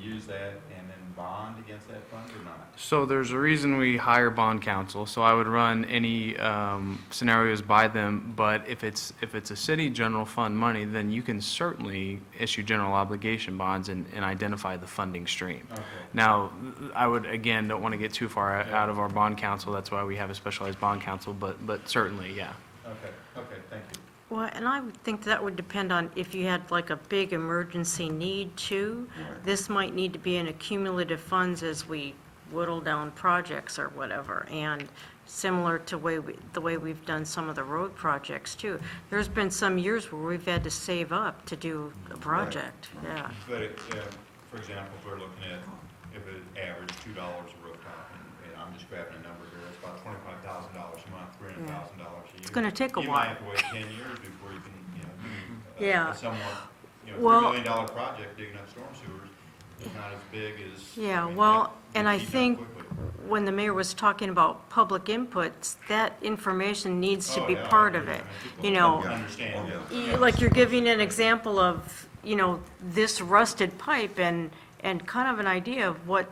use that and then bond against that fund or not? So there's a reason we hire bond counsel, so I would run any um, scenarios by them, but if it's, if it's a city general fund money, then you can certainly issue general obligation bonds and, and identify the funding stream. Okay. Now, I would, again, don't want to get too far out of our bond counsel, that's why we have a specialized bond counsel, but, but certainly, yeah. Okay, okay, thank you. Well, and I would think that would depend on if you had like a big emergency need too. This might need to be in accumulative funds as we whittle down projects or whatever. And similar to way, we- the way we've done some of the road projects too. There's been some years where we've had to save up to do a project, yeah. But, it, uh, for example, if we're looking at, if it averaged two dollars a rooftop, and- and I'm just grabbing a number here, it's about twenty-five thousand dollars a month, three hundred thousand dollars a year. It's gonna take a You while. might have to wait ten years before you can, you know, do uh, a- Yeah. a somewhat, you know, Well- three million dollar project digging up storm sewers, is not as big as. I Yeah, mean, well, that- and you I heat up think quickly. When the mayor was talking about public inputs, that information needs to Oh, be yeah, I part of agree. it, I think you we'll- know. Understand, yeah. You- E, Like you're giving an example of, you know, this rusted pipe and, and kind of an idea of what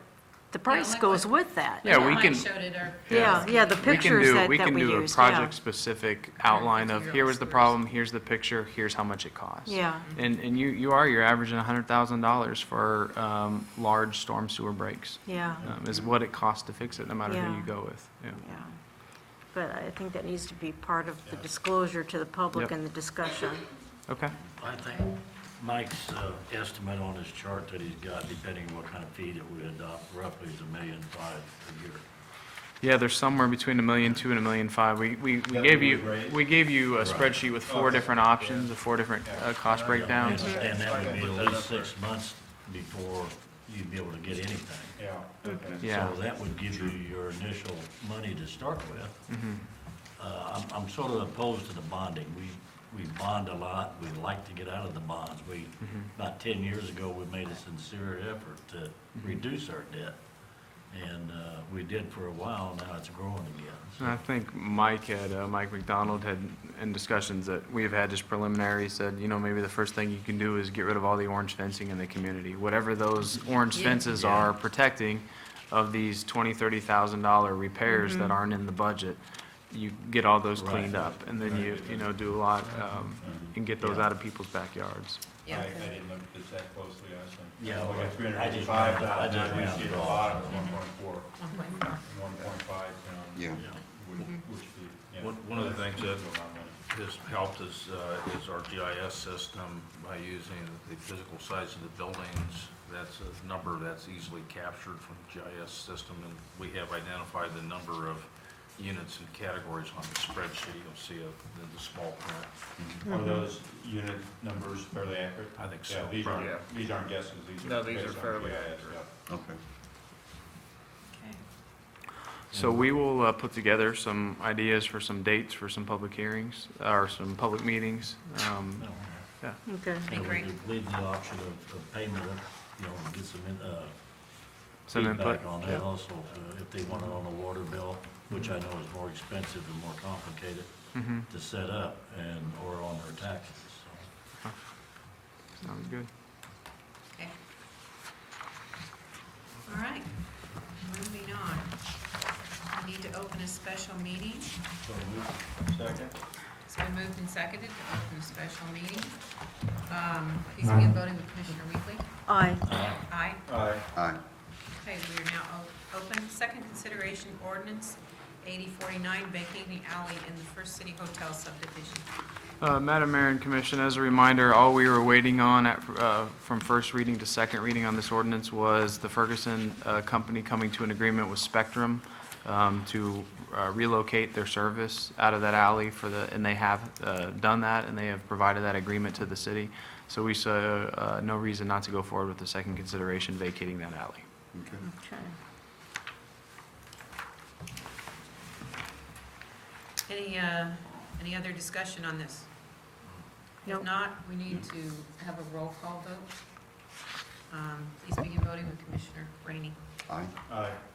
the price like goes what- with that. Yeah, we Mike can- showed it, or- Yeah, yeah, the We can pictures do, that, we that can we do a used, yeah. project-specific outline of, here was the problem, here's the picture, here's how much it costs. Yeah. And, and you, you are, you're averaging hundred thousand dollars for, um, large storm sewer breaks, Yeah, um, is what it costs to fix it, no matter who Yeah. you go with, yeah. yeah. But I think that needs to be part of the disclosure to the Yep. public and the discussion. Okay, I think Mike's uh, estimate on his chart that he's got, depending on what kind of fee that we adopt, roughly is a million five a year. yeah, there's somewhere between a million two and a million five, we, we, we That gave would you, raise- we gave you a spreadsheet with four Okay. different options, the four different, uh, cost I breakdowns. understand that would be at least six months before you'd be able to get anything. Yeah, okay. Yeah. So that would give you your initial money to start with. Mm-hmm. Uh, I'm, I'm sort of opposed to the bonding. We, we bond a lot, we like to get out of the bonds. We, Mm-hmm. about ten years ago, we made a sincere effort to Mm-hmm. reduce our debt. And uh, we did for a while, now it's growing again. And I think Mike had, uh, Mike McDonald had, in discussions that we've had just preliminary, said, you know, maybe the first thing you can do is get rid of all the orange fencing in the community. Whatever those orange fences are protecting of these twenty, thirty thousand dollar repairs that aren't in the budget, you get all those Right. cleaned up, and then you, you know, do a lot, um, and get those out of people's backyards. I, Yeah. I didn't look at this that closely, I was thinking. Yeah, Look well, at three hundred I and just- five I thousand, just I rounded see the off. bottom, one point four, one point five, you know. Yeah. Which, Mm-hmm. which, the- yeah. One- one of the things that- Well, I'm gonna- has helped is, uh, is our GIS system by using the physical size of the buildings. That's a number that's easily captured from the GIS system, and we have identified the number of units and categories on the spreadsheet. You'll see it in the small print. Are those unit numbers fairly accurate? I think Yeah, so, These aren't, probably. these aren't guesses, these are. No, these based are on fairly GIS, accurate. yeah. Okay. So we will uh, put together some ideas for some dates for some public hearings, or some public meetings. Um, Yeah, Okay. And we Agree. could leave the option of of payment, you know, get some in- uh, some input. feedback on Yeah. Mm-hmm. that also, uh, if they want it on a water bill, which I know is more expensive and more complicated to set up and, or on their taxes, so. Sounds good. Okay. All right, moving on. We need to open a special meeting. Second? It's been moved and seconded to open a special meeting. Um, Please begin voting with Commissioner Weekly. Aye. Aye. Aye. Aye. Okay, we are now o- open. Second consideration ordinance 8049 vacating alley in the First City Hotel subdivision. Uh, Madam Mayor and Commission, as a reminder, all we were waiting on at, uh, from first reading to second reading on this ordinance was the Ferguson uh, Company coming to an agreement with Spectrum um, to uh, relocate their service out of that alley for the, and they have uh, done that, and they have provided that agreement to the city. So we saw uh, no reason not to go forward with the second consideration vacating that alley. Okay. Okay. Any, uh, any other discussion on this? If Nope. not, we need to have a roll call vote. Um, Please begin voting with Commissioner Rainey. Aye. Aye. um, uh,